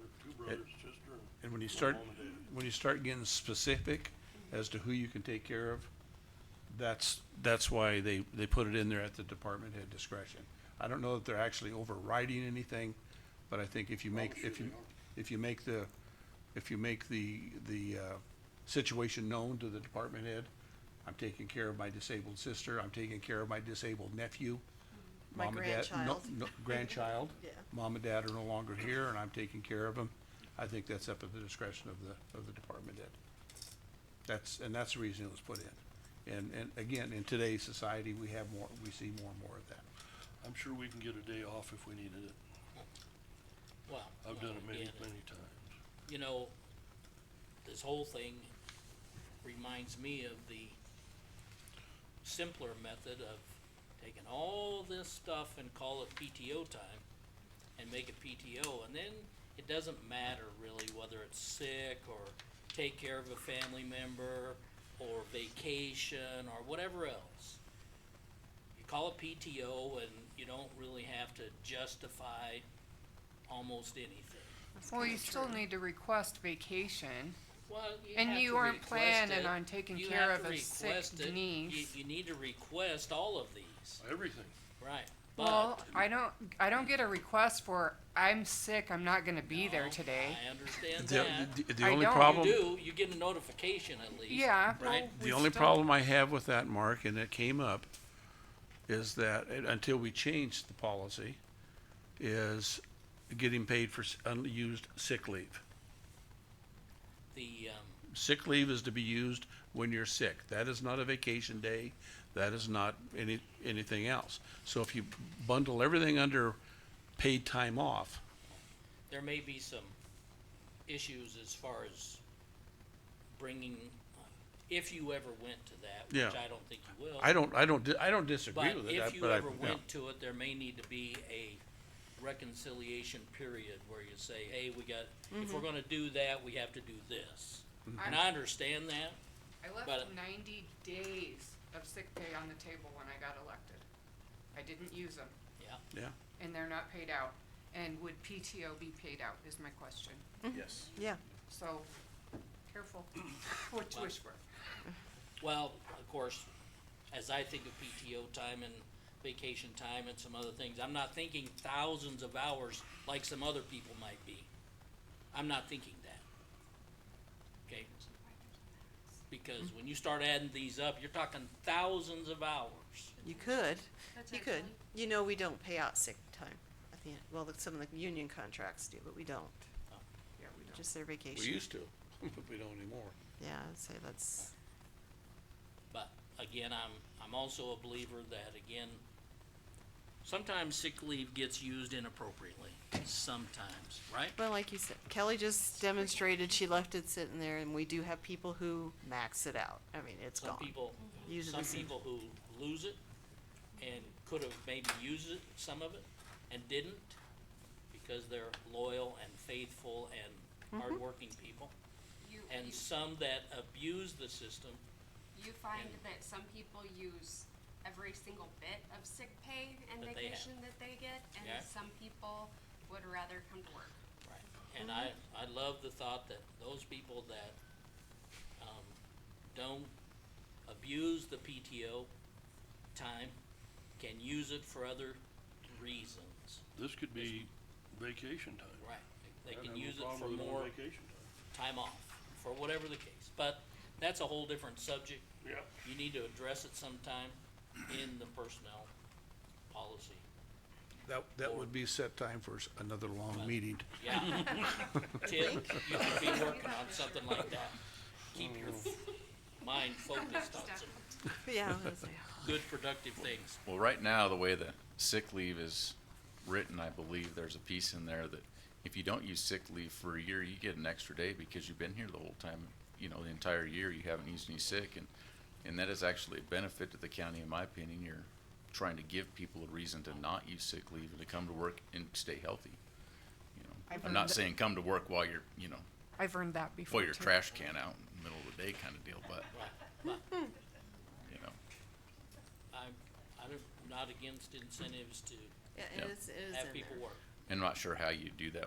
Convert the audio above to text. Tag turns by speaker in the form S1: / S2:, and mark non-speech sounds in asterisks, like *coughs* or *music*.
S1: with two brothers, sister, and.
S2: And when you
S1: one
S2: start,
S1: mom and dad.
S2: when you start getting specific as to who you can take care of, that's, that's why they, they put it in there at the department head discretion. I don't know that they're actually overriding anything, but I think if you make,
S1: sure
S2: if you,
S1: they aren't.
S2: if you make the, if you make the, the, uh, situation known to the department head, I'm taking care of my disabled sister, I'm taking care of my disabled nephew.
S3: My
S2: Mom and dad- no-
S3: grandchild.
S2: no- Grandchild.
S3: Yeah.
S2: Mom and dad are no longer here and I'm taking care of them. I think that's up at the discretion of the, of the department head. That's, and that's the reason it was put in. And, and again, in today's society, we have more, we see more and more of that.
S1: I'm sure we can get a day off if we needed it.
S4: Well.
S1: I've done it many,
S4: again,
S1: many times.
S4: You know, this whole thing reminds me of the simpler method of taking all this stuff and call it PTO time and make it PTO, and then it doesn't matter really whether it's sick or take care of a family member or vacation or whatever else. You call it PTO and you don't really have to justify almost anything.
S5: Well, you still need to request vacation.
S4: Well, you
S5: And
S4: have
S5: you
S4: to
S5: aren't
S4: request
S5: planning
S4: it.
S5: on taking
S4: You
S5: care
S4: have
S5: of
S4: to
S5: a sick
S4: request it. You-
S5: niece.
S4: You, need to request all of these,
S1: Everything.
S4: right?
S5: Well,
S4: But-
S5: I don't, I don't get a request for, I'm sick, I'm not gonna be there
S4: No,
S5: today.
S4: I understand
S2: The-
S4: that.
S2: The, the
S5: I
S2: only
S5: don't. You
S4: You
S2: problem.
S4: do, you get a notification at least.
S5: Yeah. well,
S4: Right?
S2: The
S5: we
S2: only
S5: still-
S2: problem I have with that, Mark, and it came up, is that it- until we change the policy, is getting paid for s- unused sick leave.
S4: The, um,
S2: Sick leave is to be used when you're sick. That is not a vacation day. That is not any, anything else. So if you bundle everything under paid time off,
S4: there may be some issues as far as bringing, if you ever went to that,
S2: Yeah.
S4: which I don't think you will.
S2: I don't, I don't, di- I don't disagree
S4: But
S2: with it. I-
S4: if you
S2: but I-
S4: ever
S2: yeah.
S4: went to it, there may need to be a reconciliation period where you say, hey, we got, if we're gonna do that, we have to do this. And I understand that,
S5: I left
S4: but-
S5: ninety days of sick pay on the table when I got elected. I didn't use them,
S4: yeah,
S2: Yeah,
S5: and they're not paid out. And would PTO be paid out is my question.
S2: yes.
S3: Yeah,
S5: So,
S4: *coughs*
S5: careful what you wish for.
S4: well, of course, as I think of PTO time and vacation time and some other things, I'm not thinking thousands of hours like some other people might be. I'm not thinking that. Okay? Because when you start adding these up, you're talking thousands of hours.
S3: you could,
S5: That's
S3: you could. You know, we don't pay out sick time at the end. Well, like, some of the union contracts do, but we don't.
S5: Yeah, we don't.
S3: Just their
S2: We
S3: vacation.
S2: used to, *laughs* but we don't anymore.
S3: Yeah, I'd say that's,
S4: But again, I'm, I'm also a believer that again, sometimes sick leave gets used inappropriately, sometimes, right?
S3: well, like you said, Kelly just demonstrated she left it sitting there and we do have people who max it out. I mean, it's
S4: Some
S3: gone.
S4: people,
S3: Use it
S4: some
S3: as a-
S4: people who lose it and could have maybe used it, some of it, and didn't because they're loyal and faithful
S3: Mm-hmm.
S4: and hardworking people.
S6: You,
S4: And
S6: you,
S4: some that abuse the system,
S6: you find that some people use every single bit of sick pay and
S4: That they have.
S6: vacation that they get, and
S4: Yeah.
S6: some people would rather come to work.
S4: Right, and I, I love the thought that those people that, um, don't abuse the PTO time can use it for other reasons,
S1: This could be vacation time.
S4: right? They
S1: I'd
S4: can
S1: have no
S4: use it
S1: problem
S4: for
S1: with on
S4: more
S1: Vacation time.
S4: time off, for whatever the case, but that's a whole different subject.
S1: Yeah.
S4: You need to address it sometime in the personnel policy.
S2: That, that would be set time for s- another long meeting.
S4: Yeah. *laughs* Tim, you should be working on something like that. Keep your mind focused on some
S3: *laughs* Yeah, I was gonna say.
S4: good productive things.
S7: Well, right now, the way that sick leave is written, I believe there's a piece in there that if you don't use sick leave for a year, you get an extra day because you've been here the whole time, you know, the entire year, you haven't used any sick, and, and that is actually a benefit to the county, in my opinion, you're trying to give people a reason to not use sick leave and to come to work and stay healthy. You know,
S5: I've
S7: I'm not
S5: heard-
S7: saying come to work while you're, you know,
S5: I've earned that before
S7: pull your
S5: too.
S7: trash can out in the middle of the day kind of deal, but, you know.
S4: I'm, I'm not against incentives to
S3: Yeah,
S7: Yep.
S3: it is, it is in there.
S4: have people work.
S7: I'm not sure how you do that